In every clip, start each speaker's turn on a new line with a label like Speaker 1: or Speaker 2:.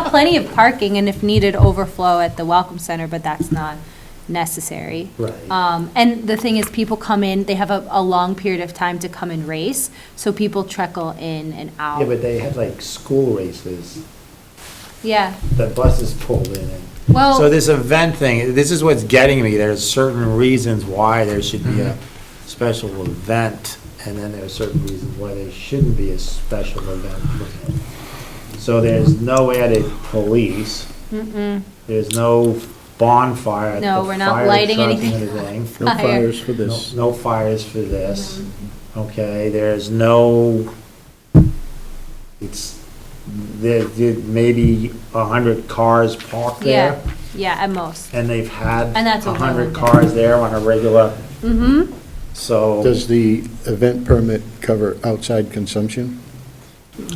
Speaker 1: plenty of parking and if needed, overflow at the Welcome Center, but that's not necessary.
Speaker 2: Right.
Speaker 1: Um, and the thing is, people come in, they have a, a long period of time to come and race, so people trickle in and out.
Speaker 2: Yeah, but they have like school races,
Speaker 1: Yeah,
Speaker 2: the buses pull in and.
Speaker 1: Well-
Speaker 2: So this event thing, this is what's getting me, there's certain reasons why there should be a special event, and then there are certain reasons why there shouldn't be a special event. So there's no added police,
Speaker 1: mm-mm,
Speaker 2: there's no bonfire at the
Speaker 1: No, we're not
Speaker 2: fire
Speaker 1: lighting
Speaker 2: truck and
Speaker 1: anything
Speaker 2: everything.
Speaker 1: No Fire. fires
Speaker 3: for
Speaker 2: No- No fires for this,
Speaker 1: Mm-hmm.
Speaker 2: okay, there's no, it's, there, there may be a hundred cars parked
Speaker 1: yeah,
Speaker 2: there,
Speaker 1: yeah, at most.
Speaker 2: and they've had
Speaker 1: And that's
Speaker 2: a
Speaker 1: okay
Speaker 2: hundred
Speaker 1: with it.
Speaker 2: cars there on a regular,
Speaker 1: Mm-hmm,
Speaker 2: so.
Speaker 3: Does the event permit cover outside consumption?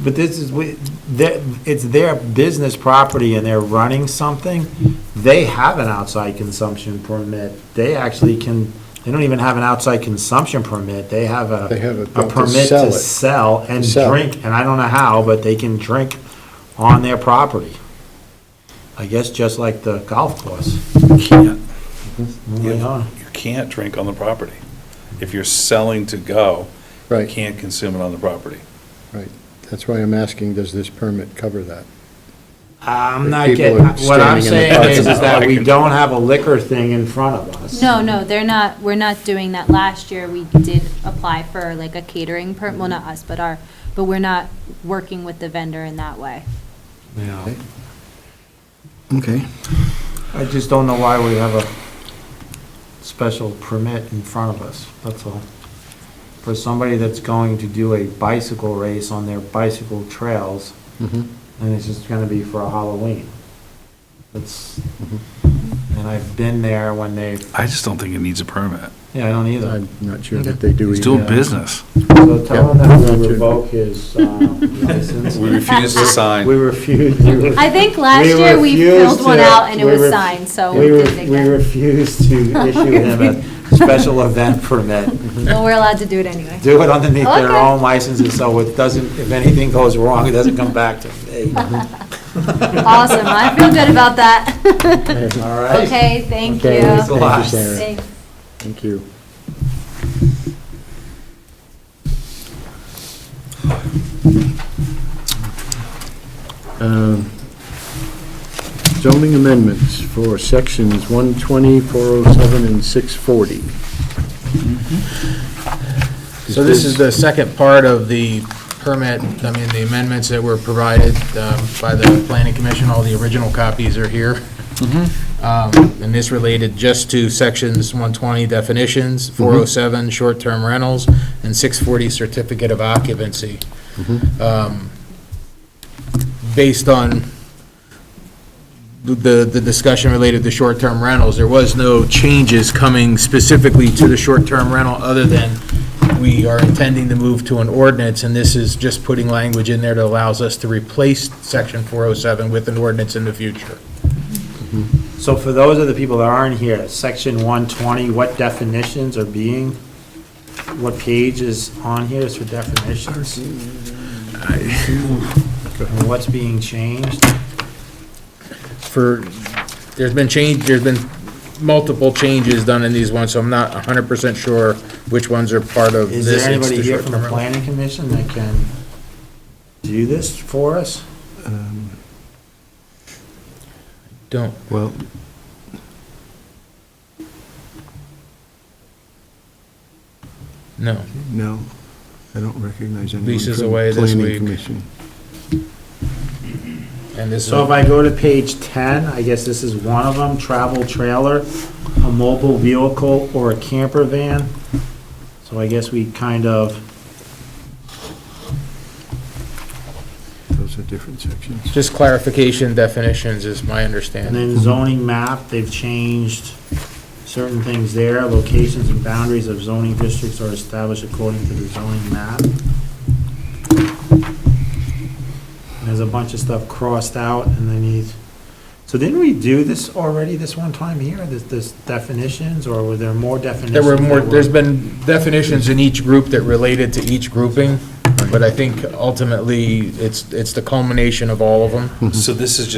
Speaker 2: But this is, we- that- it's their business property and they're running something. They have an outside consumption permit. They actually can, they don't even have an outside consumption permit. They have a.
Speaker 3: They have a- to
Speaker 2: permit
Speaker 3: sell
Speaker 2: to
Speaker 3: it.
Speaker 2: sell and
Speaker 3: Sell.
Speaker 2: drink, and I don't know how, but they can drink on their property. I guess just like the golf course.
Speaker 4: can't,
Speaker 2: Moving on.
Speaker 4: you can't drink on the property. If you're selling to go, you
Speaker 3: Right,
Speaker 4: can't consume it on the property.
Speaker 3: right. That's why I'm asking, does this permit cover that?
Speaker 2: Uh, I'm not getting,
Speaker 3: People are
Speaker 2: what I'm
Speaker 3: standing in the
Speaker 2: saying
Speaker 3: parking
Speaker 2: is, is
Speaker 4: lot.
Speaker 2: that we don't have a liquor thing in front of us.
Speaker 1: no, no, they're not, we're not doing that. Last year, we did apply for like a catering per, well, not us, but our, but we're not working with the vendor in that way.
Speaker 2: Yeah.
Speaker 3: Okay.
Speaker 2: I just don't know why we have a special permit in front of us, that's all. For somebody that's going to do a bicycle race on their bicycle trails,
Speaker 3: Mm-hmm.
Speaker 2: and it's just gonna be for a Halloween. It's, and I've been there when they,
Speaker 4: I just don't think it needs a permit.
Speaker 2: yeah, I don't either.
Speaker 3: I'm not sure that they do.
Speaker 4: He's
Speaker 3: either.
Speaker 4: doing business.
Speaker 2: So tell him that
Speaker 3: Yeah.
Speaker 2: we revoke his uh, license.
Speaker 4: We refuse to
Speaker 2: We
Speaker 4: sign.
Speaker 2: refuse.
Speaker 1: I think last
Speaker 2: We
Speaker 1: year we filled
Speaker 2: refused
Speaker 1: one
Speaker 2: to-
Speaker 1: out and it
Speaker 2: we
Speaker 1: was
Speaker 2: ref-
Speaker 1: signed, so we
Speaker 2: We
Speaker 1: did
Speaker 2: re-
Speaker 1: it
Speaker 2: we
Speaker 1: again.
Speaker 2: refuse to issue him a special event permit.
Speaker 1: But we're allowed to do it anyway.
Speaker 2: do it underneath their
Speaker 1: Okay.
Speaker 2: own licenses, so it doesn't, if anything goes wrong, it doesn't come back to me.
Speaker 1: Awesome, I feel good about that.
Speaker 2: All right?
Speaker 1: Okay, thank
Speaker 3: Okay,
Speaker 2: Thanks a
Speaker 1: you.
Speaker 2: lot.
Speaker 3: Thank you, Sarah.
Speaker 1: Thanks.
Speaker 3: Thank you. Um, Zoning amendments for sections 120, 407, and 640. Mm-hmm.
Speaker 5: So this is the second part of the permit, I mean, the amendments that were provided um, by the planning commission, all the original copies are here. Um, And this related just to sections 120 definitions, 407 short-term rentals, and 640 certificate of occupancy. Um, Based on the, the discussion related to short-term rentals, there was no changes coming specifically to the short-term rental, other than we are intending to move to an ordinance, and this is just putting language in there that allows us to replace section 407 with an ordinance in the future.
Speaker 2: So for those of the people that aren't here, section one twenty, what definitions are being, what page is on here is for definitions? And what's being changed?
Speaker 5: For, there's been change, there's been multiple changes done in these ones, so I'm not 100% sure which ones are part of
Speaker 2: Is
Speaker 5: this.
Speaker 2: there
Speaker 5: It's
Speaker 2: anybody
Speaker 5: the
Speaker 2: here from the
Speaker 5: short-term rental.
Speaker 2: planning commission that can do this for us?
Speaker 5: Don't,
Speaker 3: Well,
Speaker 5: no.
Speaker 3: no, I don't recognize anyone.
Speaker 5: Lisa's
Speaker 3: from
Speaker 5: away this
Speaker 3: Planning
Speaker 5: week.
Speaker 3: Commission.
Speaker 5: And this is,
Speaker 2: So if I go to page 10, I guess this is one of them, travel trailer, a mobile vehicle, or a camper van. So I guess we kind of,
Speaker 3: Those are different sections.
Speaker 5: just clarification definitions is my
Speaker 2: and
Speaker 5: understanding.
Speaker 2: then zoning map, they've changed certain things there. Locations and boundaries of zoning districts are established according to the zoning map. And There's a bunch of stuff crossed out, and then you, so didn't we do this already this one time here, this, this definitions, or were there more definitions?
Speaker 5: There were more,
Speaker 2: that
Speaker 5: there's been definitions in each group that related to each grouping, but I think ultimately, it's, it's the culmination of all of them.
Speaker 4: So this is just